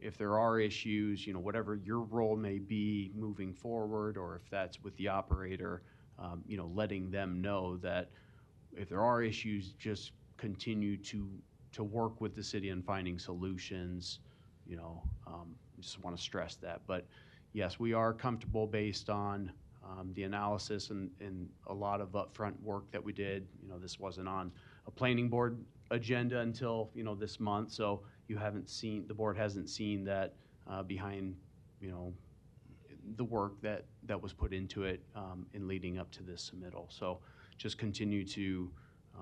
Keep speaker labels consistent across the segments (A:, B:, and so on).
A: if there are issues, you know, whatever your role may be moving forward, or if that's with the operator, um, you know, letting them know that if there are issues, just continue to, to work with the city on finding solutions, you know, um, just want to stress that. But yes, we are comfortable based on, um, the analysis and, and a lot of upfront work that we did. You know, this wasn't on a planning board agenda until, you know, this month, so you haven't seen, the board hasn't seen that uh, behind, you know, the work that, that was put into it um, in leading up to this submittal. So just continue to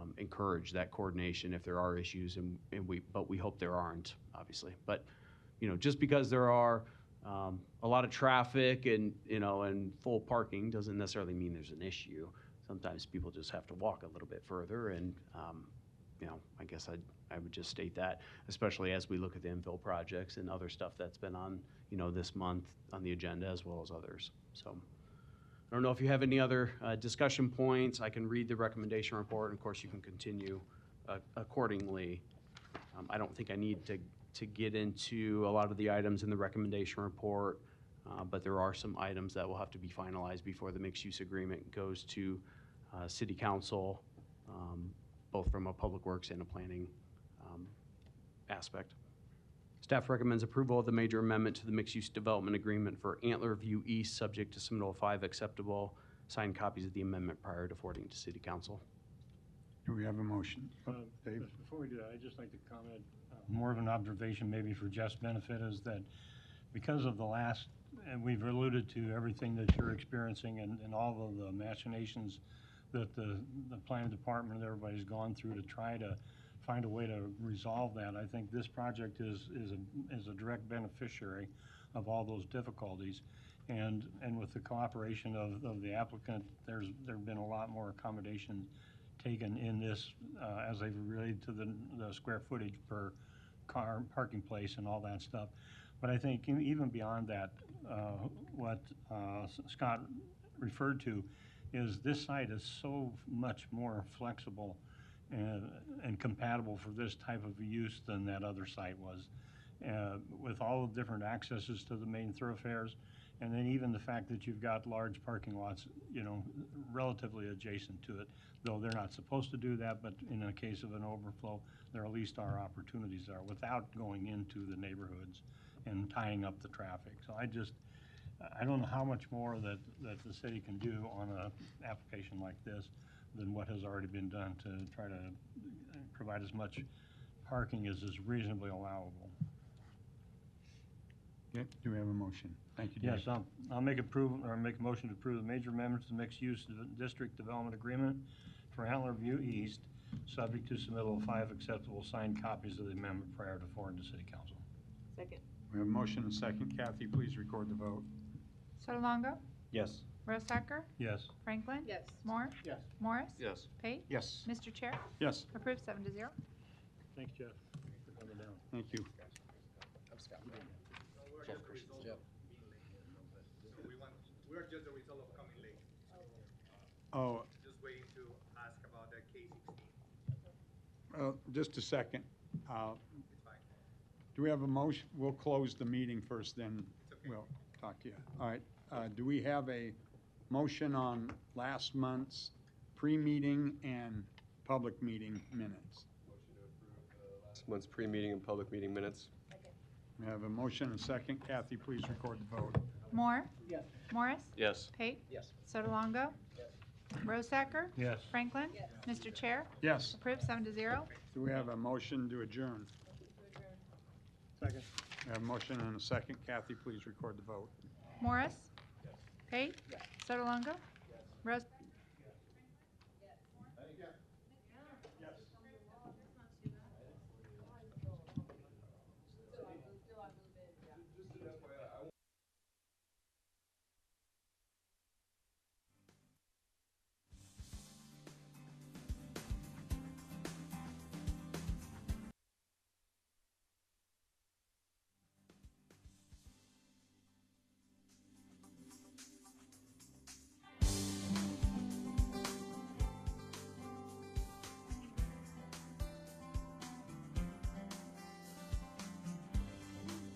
A: um, encourage that coordination if there are issues, and, and we, but we hope there aren't, obviously. But, you know, just because there are um, a lot of traffic and, you know, and full parking doesn't necessarily mean there's an issue. Sometimes people just have to walk a little bit further, and, um, you know, I guess I'd, I would just state that, especially as we look at the infill projects and other stuff that's been on, you know, this month on the agenda as well as others. So I don't know if you have any other uh, discussion points. I can read the recommendation report, and of course, you can continue uh, accordingly. Um, I don't think I need to, to get into a lot of the items in the recommendation report, uh, but there are some items that will have to be finalized before the mixed-use agreement goes to uh, city council, um, both from a public works and a planning um, aspect. Staff recommends approval of the major amendment to the mixed-use development agreement for Antler View East, subject to submittal five acceptable. Signed copies of the amendment prior to forwarding to city council.
B: Do we have a motion?
C: Um,
B: Dave?
C: just Before we do that, I'd just like to comment, uh, more of an observation maybe for Jeff's benefit is that because of the last, and we've alluded to everything that you're experiencing and, and all of the machinations that the, the planning department and everybody's gone through to try to find a way to resolve that, I think this project is, is a, is a direct beneficiary of all those difficulties. And, and with the cooperation of, of the applicant, there's, there've been a lot more accommodations taken in this, uh, as they related to the, the square footage per car, parking place and all that stuff. But I think e- even beyond that, uh, what uh, S- Scott referred to is this site is so much more flexible and, and compatible for this type of use than that other site was. Uh, with all the different accesses to the main thoroughfares, and then even the fact that you've got large parking lots, you know, relatively adjacent to it though they're not supposed to do that, but in the case of an overflow, there at least are opportunities there without going into the neighborhoods and tying up the traffic. So I just, I don't know how much more that, that the city can do on a application like this than what has already been done to try to uh, provide as much parking as is reasonably allowable.
B: Yeah, do we have a motion? Thank you, Dave.
C: Yes, I'll, I'll make approval, or make a motion to approve the major amendment to the mixed-use d- district development agreement for Antler View East, subject to submittal of five acceptable signed copies of the amendment prior to forward to city council.
D: Second.
B: We have a motion and second. Kathy, please record the vote.
E: Sotolongo,
F: Yes.
E: Rosacker,
C: Yes.
E: Franklin.
D: Yes.
E: Moore.
C: Yes.
E: Morris.
F: Yes.
E: Pate.
B: Yes.
E: Mr. Chair,
B: Yes,
E: approved seven to zero.
C: Thanks, Jeff. for coming down.
B: thank you.
G: So we want, we're just the result of coming late,
B: Oh,
G: just waiting to ask about the K sixteen,
B: well, uh, just a second. Uh,
G: it's fine.
B: Do we have a motion? We'll close the meeting first, then we'll talk to you. All right, uh, do we have a motion on last month's pre-meeting and public meeting minutes?
F: Last month's pre-meeting and public meeting minutes.
B: We have a motion and second. Kathy, please record the vote.
E: Moore. Morris.
F: Yes.
E: Pate. Yes. Sotolongo. Rosacker.
C: Yes.
E: Franklin. Mr. Chair,
B: Yes,
E: approved seven to zero.
B: do we have a motion to adjourn?
C: Second.
B: We have a motion and a second. Kathy, please record the vote.
E: Morris. Pate. Sotolongo. Ros,